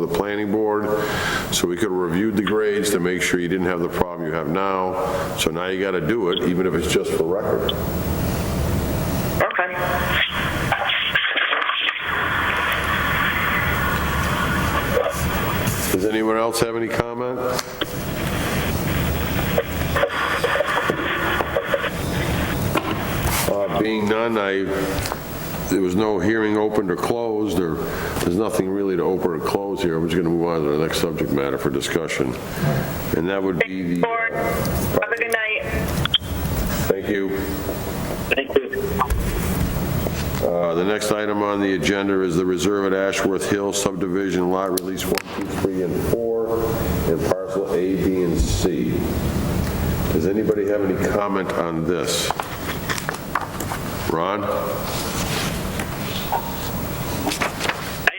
the planning board, so we could have reviewed the grades to make sure you didn't have the problem you have now. So now you got to do it, even if it's just for record. Okay. Does anyone else have any comment? Uh, Being none, I, there was no hearing opened or closed, or there's nothing really to open or close here. I'm just going to move on to the next subject matter for discussion. And that would be Board, the, have a good night. thank you. Thank you. Uh, The next item on the agenda is the reserve at Ashworth Hill subdivision lot release 1, 2, 3, and 4, and parcel A, B, and C. Does anybody have any comment on this? Ron? I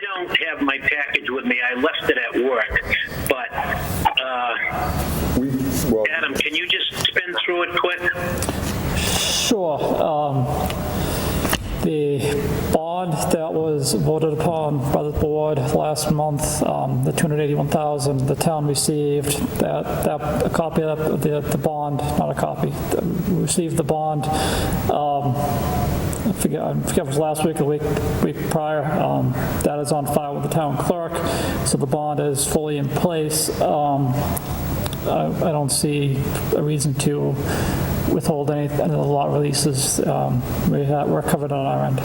don't have my package with me. I left it at work. But, uh, Adam, can you just spin through it quick? Sure. um, The bond that was voted upon by the board last month, um, the 281,000, the town received that, that, a copy of the, the bond, not a copy, we received the bond, um, I forget, I forget if it was last week or the week, week prior, um, that is on file with the town clerk, so the bond is fully in place. Um, I I don't see a reason to withhold any any of the lot releases. Um, we ha- We're covered on our end.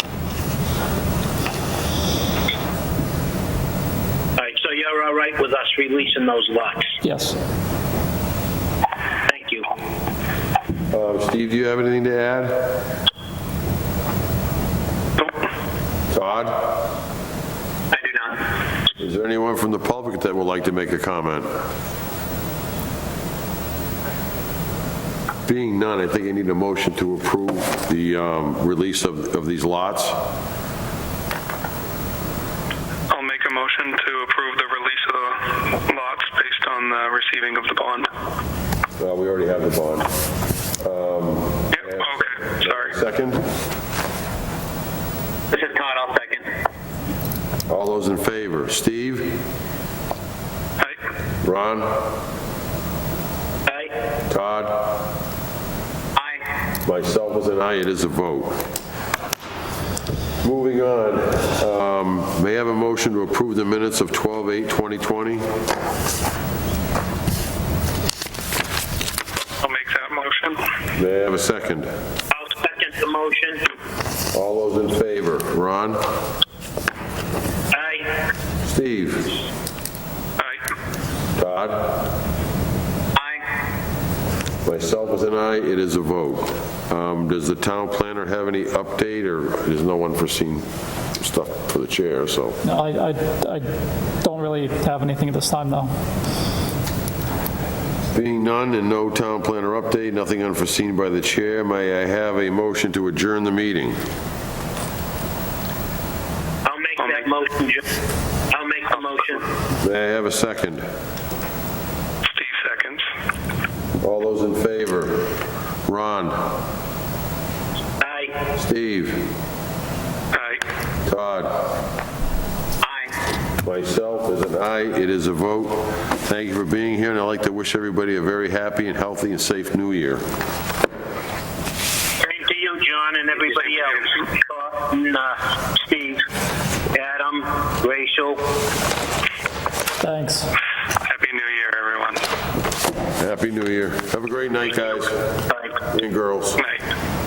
All right, so you're all right with us releasing those lots? Yes. Thank you. Uh, Steve, do you have anything to add? Todd? I do not. Is there anyone from the public that would like to make a comment? Being none, I think I need a motion to approve the um, release of of these lots. I'll make a motion to approve the release of the lots based on the receiving of the bond. Uh, We already have the bond. Um, Yep, okay, sorry. Second, This is Todd, I'll second. all those in favor? Steve? Aye. Ron? Aye. Todd? Aye. Myself as an aye, it is a vote. Moving on, um, may I have a motion to approve the minutes of 12/8/2020? I'll make that motion. May I have a second? I'll second the motion. All those in favor? Ron? Aye. Steve? Aye. Todd? Aye. Myself as an aye, it is a vote. Um, Does the town planner have any update, or there's no unforeseen stuff for the chair, so? No, I, I- I don't really have anything at this time, though. Being none and no town planner update, nothing unforeseen by the chair, may I have a motion to adjourn the meeting? I'll make that motion, Joe. I'll make the motion. May I have a second? Steve seconds. All those in favor? Ron? Aye. Steve? Aye. Todd? Aye. Myself as an aye, it is a vote. Thank you for being here, and I'd like to wish everybody a very happy and healthy and safe new year. Same to you, John, and everybody else. Carlton, uh, Steve, Adam, Rachel. Thanks. Happy New Year, everyone. Happy New Year. Have a great night, guys Bye. and girls. Night.